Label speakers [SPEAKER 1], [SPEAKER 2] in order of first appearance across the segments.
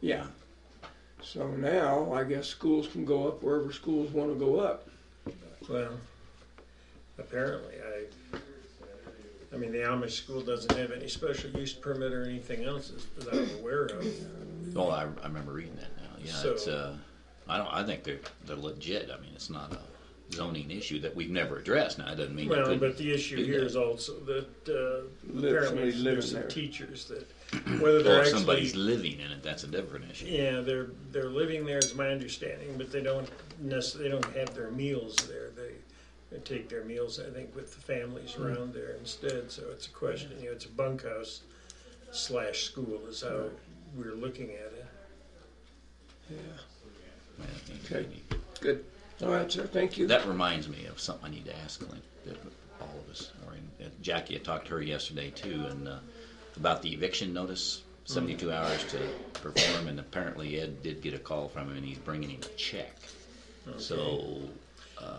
[SPEAKER 1] Yeah. So now, I guess schools can go up wherever schools want to go up.
[SPEAKER 2] Well, apparently, I, I mean, the Amish school doesn't have any special use permit or anything else that I'm aware of.
[SPEAKER 3] Well, I, I remember reading that now. Yeah,
[SPEAKER 2] So-
[SPEAKER 3] it's uh, I don't. I think they're they're legit. I mean, it's not a zoning issue that we've never addressed. Now, it doesn't mean
[SPEAKER 2] Well,
[SPEAKER 3] you
[SPEAKER 2] but
[SPEAKER 3] could.
[SPEAKER 2] the issue here is also that uh, apparently
[SPEAKER 1] somebody's living
[SPEAKER 2] there's some
[SPEAKER 1] there.
[SPEAKER 2] teachers that, whether
[SPEAKER 3] Or
[SPEAKER 2] they're
[SPEAKER 3] if somebody's
[SPEAKER 2] actually,
[SPEAKER 3] living in it, that's a different issue.
[SPEAKER 2] yeah, they're, they're living there is my understanding, but they don't necessarily, they don't have their meals there. They, they take their meals, I think, with the families
[SPEAKER 3] Hmm.
[SPEAKER 2] around there instead, so it's a question, you know, it's a bunkhouse slash school is how we're looking at it.
[SPEAKER 1] Yeah.
[SPEAKER 3] I think
[SPEAKER 1] Okay.
[SPEAKER 3] we need-
[SPEAKER 1] Good. All right, sir. Thank you.
[SPEAKER 3] That reminds me of something I need to ask Clint. That all of us are in. uh, Jackie, I talked to her yesterday too, and uh, about the eviction notice,
[SPEAKER 2] Mm.
[SPEAKER 3] 72 hours to perform, and apparently Ed did get a call from him, and he's bringing him a check. So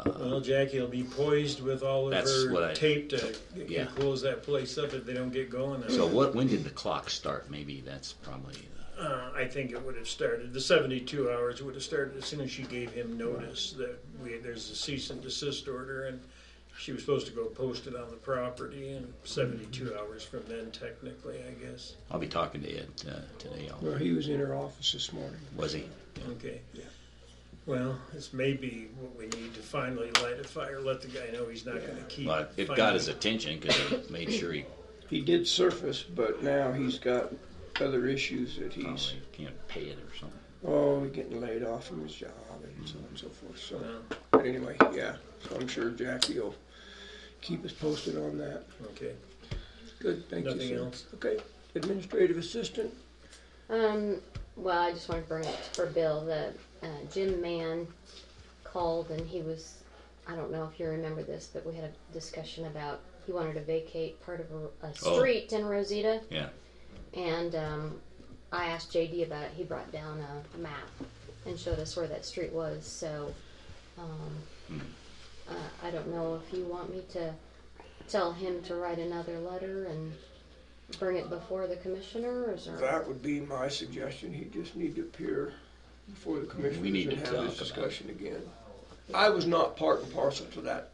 [SPEAKER 2] Well, Jackie will be poised with all of
[SPEAKER 3] That's what
[SPEAKER 2] her
[SPEAKER 3] I-
[SPEAKER 2] tape to
[SPEAKER 3] yeah.
[SPEAKER 2] close that place up if they don't get going. on
[SPEAKER 3] So
[SPEAKER 2] it.
[SPEAKER 3] what? When did the clock start? Maybe that's probably. The,
[SPEAKER 2] Uh, I think it would have started, the seventy-two hours would have started as soon as she gave him notice that we, there's a cease and desist order and she was supposed to go post it on the property and
[SPEAKER 1] Mm-hmm.
[SPEAKER 2] seventy-two hours from then technically, I guess.
[SPEAKER 3] I'll be talking to Ed uh, today. I'll,
[SPEAKER 1] Well, he was in her office this morning.
[SPEAKER 3] was he?
[SPEAKER 2] Okay. Well, this may be what we need to finally light a fire, let the guy know he's not gonna keep.
[SPEAKER 3] Well, it got his attention because it made sure he
[SPEAKER 1] He did surface, but now he's got other issues that he's,
[SPEAKER 3] probably can't pay it or something.
[SPEAKER 1] oh, he's getting laid off from his job and so on and so forth. So,
[SPEAKER 2] Yeah.
[SPEAKER 1] but anyway, yeah. So I'm sure Jackie will keep us posted on that.
[SPEAKER 2] Okay.
[SPEAKER 1] Good. Thank you,
[SPEAKER 2] Nothing
[SPEAKER 1] sir.
[SPEAKER 2] else.
[SPEAKER 1] Okay. Administrative assistant.
[SPEAKER 4] Um, well, I just wanted to bring up for Bill that uh, Jim Mann called and he was, I don't know if you remember this, but we had a discussion about he wanted to vacate part of a, a
[SPEAKER 3] Oh.
[SPEAKER 4] street in Rosita.
[SPEAKER 3] Yeah.
[SPEAKER 4] And um, I asked JD about it. He brought down a map and showed us where that street was. So um, uh, I don't know if you want me to tell him to write another letter and bring it before the commissioner, or is there?
[SPEAKER 1] That would be my suggestion. He just need to appear before the commissioners
[SPEAKER 3] need
[SPEAKER 1] and
[SPEAKER 3] to
[SPEAKER 1] have
[SPEAKER 3] talk
[SPEAKER 1] this
[SPEAKER 3] about it.
[SPEAKER 1] discussion again. I was not part and parcel to that.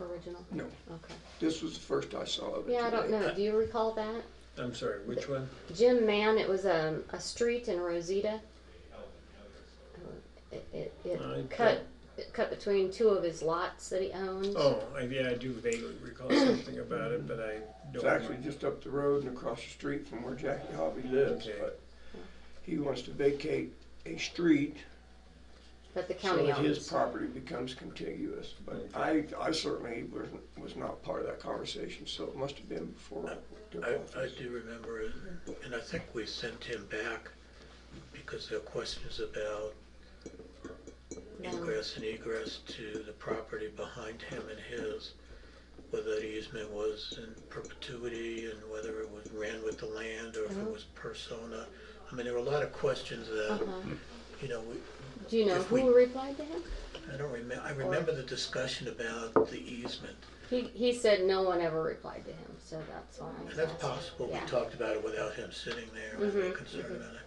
[SPEAKER 4] Original?
[SPEAKER 1] No,
[SPEAKER 4] Okay.
[SPEAKER 1] this was the first I saw of it.
[SPEAKER 4] Yeah, I don't
[SPEAKER 1] today.
[SPEAKER 4] know. Do you recall that?
[SPEAKER 2] I'm sorry, which one?
[SPEAKER 4] Jim Mann, it was um, a street in Rosita. Uh, It, it, it
[SPEAKER 2] I
[SPEAKER 4] cut it cut between two of his lots that he owns.
[SPEAKER 2] Oh, I, yeah, I do vaguely recall something about it, but I
[SPEAKER 1] It's
[SPEAKER 2] don't.
[SPEAKER 1] actually
[SPEAKER 2] remember.
[SPEAKER 1] just up the road and across the street from where Jackie Hobby lives,
[SPEAKER 2] Okay.
[SPEAKER 1] but he wants to vacate a street
[SPEAKER 4] But the
[SPEAKER 1] so
[SPEAKER 4] county
[SPEAKER 1] that his
[SPEAKER 4] owns.
[SPEAKER 1] property becomes contiguous. But I, I certainly was, was not part of that conversation, so it must have been before I took
[SPEAKER 5] I, I
[SPEAKER 1] office.
[SPEAKER 5] do remember it, and I think we sent him back because there were questions about ingress and egress to the property behind him and his, whether the easement was in perpetuity and whether it was ran with the land or if it was persona. I mean, there were a lot of questions that, you know, we,
[SPEAKER 4] Uh-huh. Do you know
[SPEAKER 5] if we-
[SPEAKER 4] who replied to him?
[SPEAKER 5] I don't remember, I remember the discussion about the easement.
[SPEAKER 4] He he said no one ever replied to him, so that's why. I'm
[SPEAKER 5] And that's
[SPEAKER 4] asking.
[SPEAKER 5] possible, we
[SPEAKER 4] Yeah.
[SPEAKER 5] talked about it without him sitting there and being concerned about it.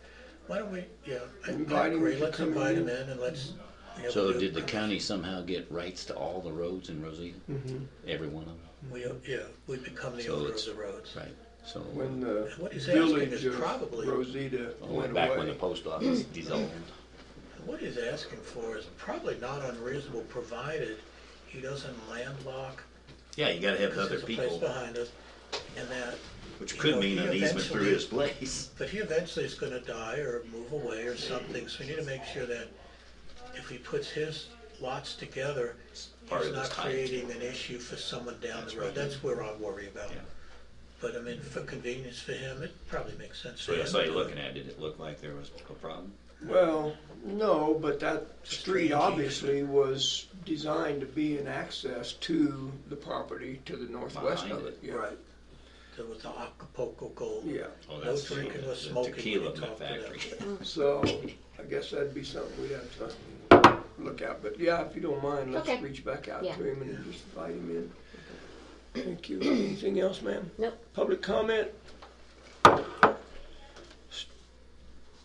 [SPEAKER 5] Why don't we, yeah, I- I
[SPEAKER 1] Invite him
[SPEAKER 5] agree,
[SPEAKER 1] to
[SPEAKER 5] let's
[SPEAKER 1] come
[SPEAKER 5] invite
[SPEAKER 1] in.
[SPEAKER 5] him in and let's. we have
[SPEAKER 3] So
[SPEAKER 5] to-
[SPEAKER 3] did the county somehow get rights to all the roads in Rosita?
[SPEAKER 5] Mm-hmm.
[SPEAKER 1] Mhm.
[SPEAKER 3] Every one of them,
[SPEAKER 5] We, yeah, we become the
[SPEAKER 3] So
[SPEAKER 5] owner of
[SPEAKER 3] it's-
[SPEAKER 5] the roads.
[SPEAKER 3] right? So
[SPEAKER 1] When the
[SPEAKER 5] What he's asking
[SPEAKER 1] village
[SPEAKER 5] is
[SPEAKER 1] of
[SPEAKER 5] probably-
[SPEAKER 1] Rosita
[SPEAKER 3] way
[SPEAKER 1] went
[SPEAKER 3] back when the
[SPEAKER 1] away.
[SPEAKER 3] post office dissolved.
[SPEAKER 5] What he's asking for is probably not unreasonable, provided he doesn't landlock,
[SPEAKER 3] Yeah, you got to have
[SPEAKER 5] because
[SPEAKER 3] other
[SPEAKER 5] there's a place
[SPEAKER 3] people,
[SPEAKER 5] behind us, and that,
[SPEAKER 3] which
[SPEAKER 5] you
[SPEAKER 3] could
[SPEAKER 5] know,
[SPEAKER 3] mean
[SPEAKER 5] he
[SPEAKER 3] an easement through
[SPEAKER 5] eventually-
[SPEAKER 3] his place.
[SPEAKER 5] but he eventually is gonna die or move away or something, so we need to make sure that if he puts his lots together,
[SPEAKER 3] part
[SPEAKER 5] he's
[SPEAKER 3] of his
[SPEAKER 5] not
[SPEAKER 3] title.
[SPEAKER 5] creating an issue for someone down the road, that's where I worry about.
[SPEAKER 3] Yeah.
[SPEAKER 5] But I mean, for convenience for him, it probably makes sense.
[SPEAKER 3] So
[SPEAKER 5] for
[SPEAKER 3] I
[SPEAKER 5] him
[SPEAKER 3] saw
[SPEAKER 5] to
[SPEAKER 3] you
[SPEAKER 5] do it.
[SPEAKER 3] looking at. Did it look like there was a problem?
[SPEAKER 1] Well, no, but that street
[SPEAKER 5] Street
[SPEAKER 1] obviously was designed to be an access to the property to the northwest
[SPEAKER 3] Behind
[SPEAKER 1] of
[SPEAKER 3] it.
[SPEAKER 1] it. yeah.
[SPEAKER 5] Right. There was the Acapulco gold.
[SPEAKER 1] Yeah,
[SPEAKER 3] Oh,
[SPEAKER 5] No
[SPEAKER 3] that's
[SPEAKER 5] drinking
[SPEAKER 3] the-
[SPEAKER 5] or
[SPEAKER 3] the
[SPEAKER 5] smoking
[SPEAKER 3] Tequila
[SPEAKER 5] when you talk to them.
[SPEAKER 3] factory.
[SPEAKER 1] so I guess that'd be something we'd have to look at, but yeah, if you don't mind, let's
[SPEAKER 4] Okay.
[SPEAKER 1] reach back out
[SPEAKER 4] Yeah.
[SPEAKER 1] to him and just invite him in. Thank you. Anything else, ma'am?
[SPEAKER 4] Nope.
[SPEAKER 1] Public comment?